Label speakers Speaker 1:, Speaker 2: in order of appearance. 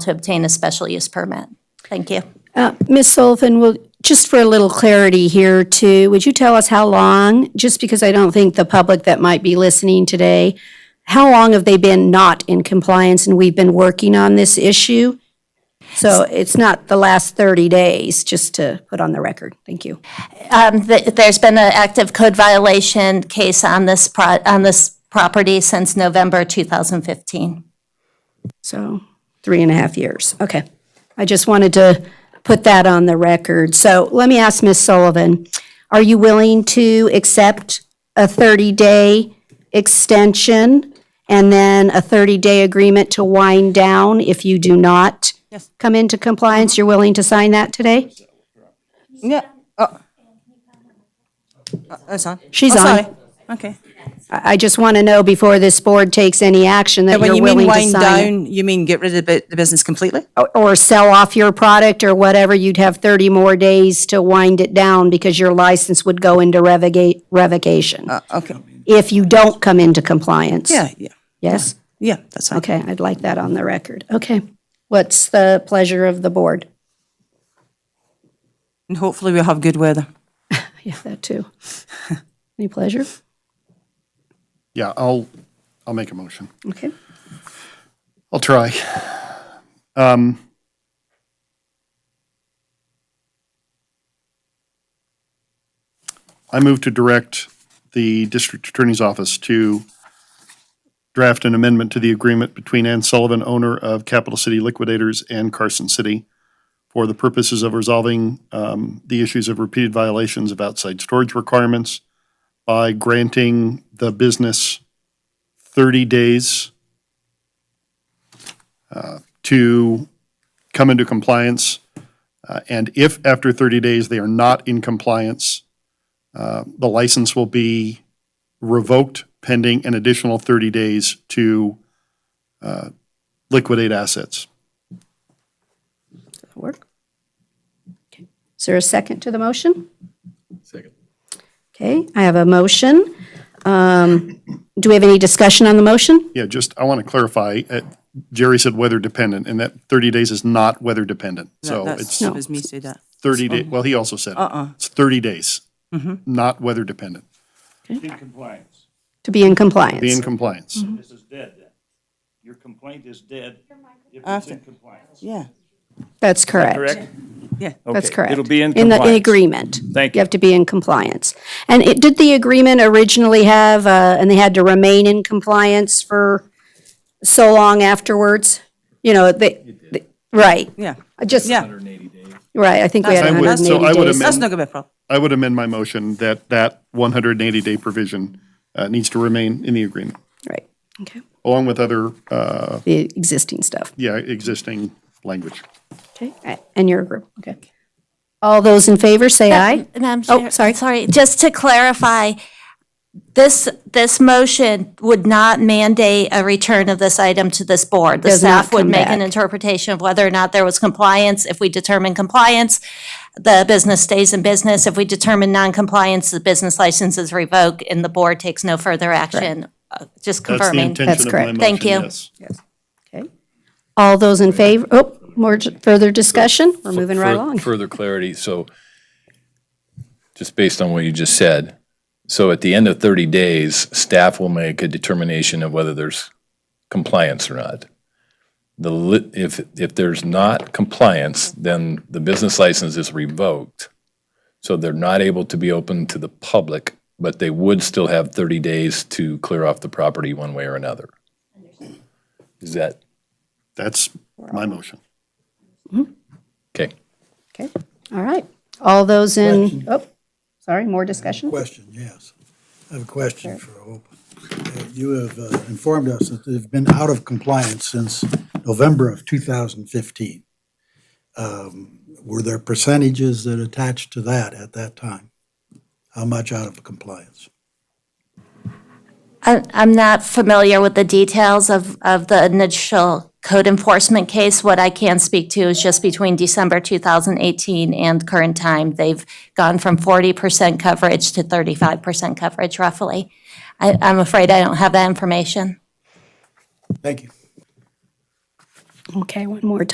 Speaker 1: to obtain a special use permit. Thank you.
Speaker 2: Ms. Uh, Sullivan, will, just for a little clarity here too, would you tell us how long, just because I don't think the public that might be listening today, how long have they been not in compliance and we've been working on this issue? So it's not the last 30 days, just to put on the record. Thank you.
Speaker 1: Um, th- There's been an active code violation case on this, pro- on this property since November 2015.
Speaker 2: So three and a half years. Okay. I just wanted to put that on the record. So let me ask Ms. Sullivan, are you willing to accept a 30-day extension and then a 30-day agreement to wind down if you do not come into compliance? You're willing to sign that today?
Speaker 3: Yeah. Oh. Uh, That's on.
Speaker 2: She's
Speaker 3: Oh,
Speaker 2: on.
Speaker 3: sorry. Okay.
Speaker 2: I I just want to know before this board takes any action that
Speaker 3: When
Speaker 2: you're
Speaker 3: you mean
Speaker 2: willing to
Speaker 3: wind
Speaker 2: sign it.
Speaker 3: down, you mean get rid of the bu- the business completely?
Speaker 2: Or- Or sell off your product or whatever, you'd have 30 more days to wind it down because your license would go into revocate, revocation.
Speaker 3: Okay.
Speaker 2: if you don't come into compliance.
Speaker 3: Uh. Yeah, yeah,
Speaker 2: Yes?
Speaker 3: yeah, that's fine.
Speaker 2: Okay, I'd like that on the record. Okay. What's the pleasure of the board?
Speaker 3: And hopefully we'll have good weather.
Speaker 2: Yeah, that too. Any pleasure?
Speaker 4: Yeah, I'll, I'll make a motion.
Speaker 2: Okay.
Speaker 4: I'll try. Um, I move to direct the district attorney's office to draft an amendment to the agreement between Ann Sullivan, owner of Capital City Liquidators and Carson City for the purposes of resolving um, the issues of repeated violations of outside storage requirements by granting the business 30 days to come into compliance. uh, And if after 30 days they are not in compliance, uh, the license will be revoked pending an additional 30 days to uh, liquidate assets.
Speaker 2: That'll work. Okay. Is there a second to the motion? Second. Okay, I have a motion. Um, Do we have any discussion on the motion?
Speaker 4: Yeah, just, I want to clarify, uh, Jerry said weather dependent, and that 30 days is not weather dependent. So
Speaker 3: That's,
Speaker 4: it's
Speaker 3: it was me say that.
Speaker 4: 30 days, well, he also said it. it's 30 days, not weather dependent.
Speaker 5: in compliance.
Speaker 2: To be in compliance?
Speaker 4: Be in compliance.
Speaker 5: This is dead then. Your complaint is dead if it's in compliance.
Speaker 3: Yeah,
Speaker 2: That's correct.
Speaker 3: yeah.
Speaker 2: That's
Speaker 5: Okay,
Speaker 2: correct.
Speaker 5: It'll be in
Speaker 2: the-
Speaker 5: compliance.
Speaker 2: In agreement.
Speaker 5: Thank
Speaker 2: You have to be in compliance. And it, did the agreement originally have, uh, and they had to remain in compliance for so long afterwards? You know, they, they- right,
Speaker 3: Yeah,
Speaker 2: I just,
Speaker 3: yeah.
Speaker 2: right, I think we had
Speaker 3: I would-
Speaker 2: hundred and
Speaker 4: so I
Speaker 2: eighty
Speaker 4: would
Speaker 2: days.
Speaker 3: That's not gonna be a problem.
Speaker 4: I would amend my motion that that 180-day provision uh, needs to remain in the agreement,
Speaker 2: Right, okay,
Speaker 4: along with other, uh,
Speaker 2: the existing stuff,
Speaker 4: yeah, existing language.
Speaker 2: okay, a- and your group, okay. All those in favor, say aye.
Speaker 1: Madam
Speaker 2: Oh,
Speaker 1: Chair.
Speaker 2: sorry.
Speaker 1: Sorry, just to clarify, this, this motion would not mandate a return of this item to this board. The
Speaker 2: Does not
Speaker 1: staff would
Speaker 2: come
Speaker 1: make an
Speaker 2: back.
Speaker 1: interpretation of whether or not there was compliance. If we determine compliance, the business stays in business. If we determine non-compliance, the business license is revoked and the board takes no further action. Uh, Just
Speaker 4: That's the
Speaker 1: confirming.
Speaker 4: intention of my
Speaker 2: correct.
Speaker 4: motion,
Speaker 1: Thank you.
Speaker 4: yes.
Speaker 2: Okay. All those in favor, oh, more, j- further discussion, we're moving right
Speaker 6: fur-
Speaker 2: along.
Speaker 6: Further clarity, so just based on what you just said, so at the end of 30 days, staff will make a determination of whether there's compliance or not. The, li- if, if there's not compliance, then the business license is revoked. So they're not able to be open to the public, but they would still have 30 days to clear off the property one way or another. Is that,
Speaker 4: That's my motion.
Speaker 6: okay?
Speaker 2: Okay, all right. All those in, oh, sorry, more discussion?
Speaker 7: Question, yes. I have a question for Hope. Uh, You have uh, informed us that they've been out of compliance since November of 2015. Um, Were there percentages that attached to that at that time? How much out of compliance?
Speaker 1: I- I'm not familiar with the details of, of the initial code enforcement case. What I can speak to is just between December 2018 and current time, they've gone from 40% coverage to 35% coverage roughly. I, I'm afraid I don't have that information.
Speaker 7: Thank you.
Speaker 2: Okay, one more time.